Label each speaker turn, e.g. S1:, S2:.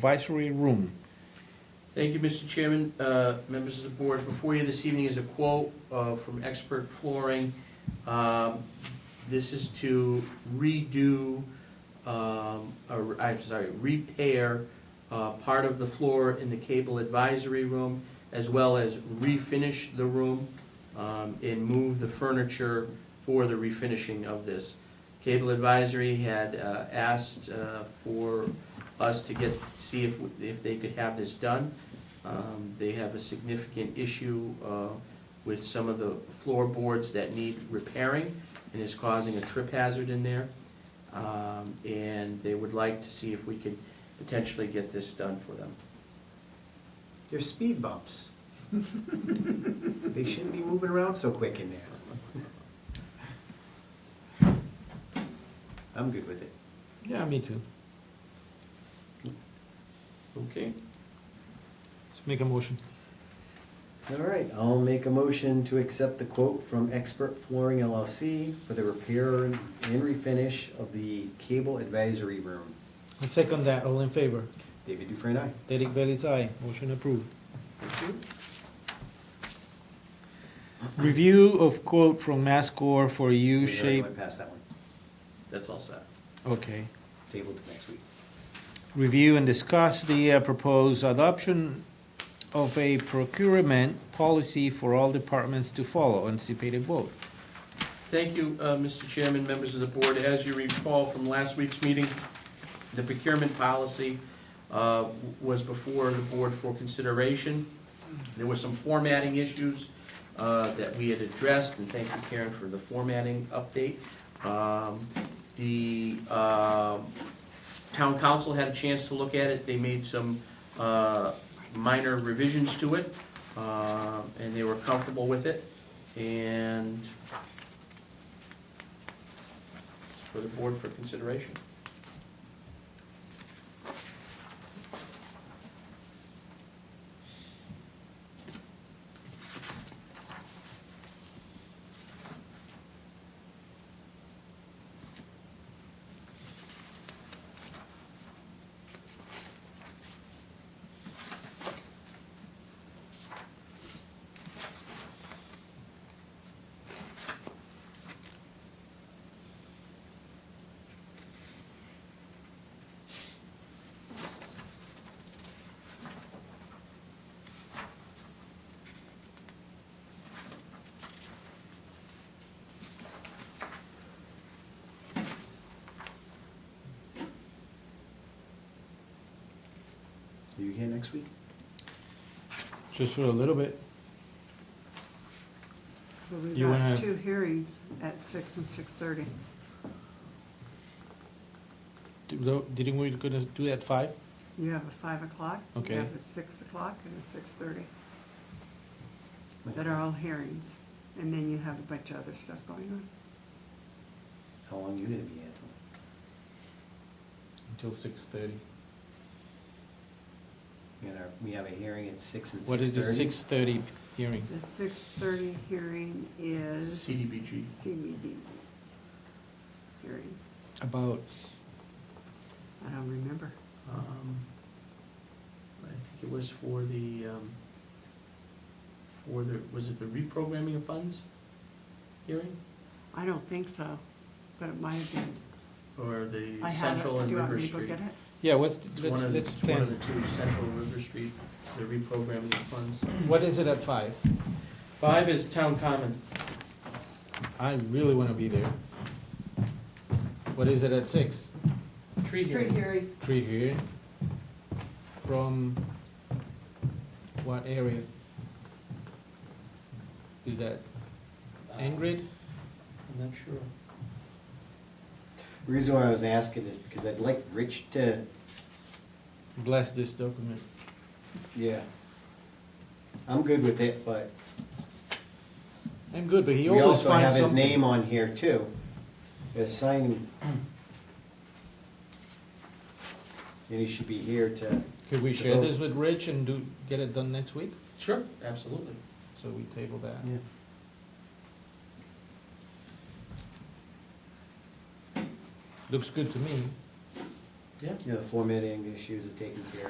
S1: Advisory Room.
S2: Thank you, Mr. Chairman, uh, members of the board. Before you this evening is a quote uh, from Expert Flooring. Um, This is to redo, um, or, I'm sorry, repair uh, part of the floor in the cable advisory room, as well as refinish the room um, and move the furniture for the refinishing of this. Cable Advisory had uh, asked uh, for us to get, see if, if they could have this done. Um, They have a significant issue uh, with some of the floorboards that need repairing and is causing a trip hazard in there. Um, And they would like to see if we could potentially get this done for them.
S3: They're speed bumps. They shouldn't be moving around so quick in there. I'm good with it.
S1: Yeah, me too.
S2: Okay.
S1: Let's make a motion.
S3: All right, I'll make a motion to accept the quote from Expert Flooring LLC for the repair and refinish of the cable advisory room.
S1: I second that, all in favor?
S3: David Dufresne, aye.
S1: Derek Bailey's aye, motion approved. Review of quote from Mascor for
S3: We
S1: U
S3: already
S1: shape,
S3: Went past that one.
S2: That's all set.
S1: okay.
S3: Table to next week.
S1: Review and discuss the uh, proposed adoption of a procurement policy for all departments to follow, anticipated vote.
S2: Thank you, uh, Mr. Chairman, members of the board. As you recall from last week's meeting, the procurement policy uh, was before the board for consideration. There were some formatting issues uh, that we had addressed, and thank you, Karen, for the formatting update. Um, The um, town council had a chance to look at it. They made some uh, minor revisions to it, uh, and they were comfortable with it. And for the board for consideration.
S3: Are you here next week?
S1: Just for a little bit.
S4: Well, we've
S1: You wanna-
S4: got two hearings at six and six thirty.
S1: Didn't we gonna do that five?
S4: You have at five o'clock.
S1: Okay.
S4: You have at six o'clock and at six thirty. That are all hearings. And then you have a bunch of other stuff going on.
S3: How long you gonna be, Anthony?
S1: Until six thirty.
S3: We got our- We have a hearing at six and six thirty.
S1: What is the six thirty hearing?
S4: The six thirty hearing is
S2: CDBG.
S4: CBD hearing.
S1: About,
S4: I don't remember.
S2: um, I think it was for the, um, for the, was it the reprogramming of funds hearing?
S4: I don't think so, but it might have been.
S2: Or the
S4: I have it.
S2: Central and
S4: Do you want
S2: River
S4: me to go
S2: Street?
S4: get it?
S1: yeah, what's,
S2: It's
S1: let's,
S2: one of, the-
S1: let's
S2: it's one of
S1: plan.
S2: the two, Central and River Street, the reprogramming of funds.
S1: What is it at five?
S2: Five is town common.
S1: I really wanna be there. What is it at six?
S2: Tree
S4: Tree
S2: hearing.
S4: hearing,
S1: Tree here. From what area? Is that Ingrid?
S2: I'm not sure.
S3: The Reason why I was asking is because I'd like Rich to,
S1: Bless this document.
S3: yeah. I'm good with it, but
S1: I'm good, but he
S3: we
S1: always finds
S3: also
S1: something.
S3: have his name on here too. The sign. And he should be here to,
S1: Could we share this with Rich and do, get it done next week?
S2: Sure, absolutely.
S1: So we table that.
S3: yeah.
S1: Looks good to me.
S2: Yeah.
S3: You know, the formatting issues are taken care of.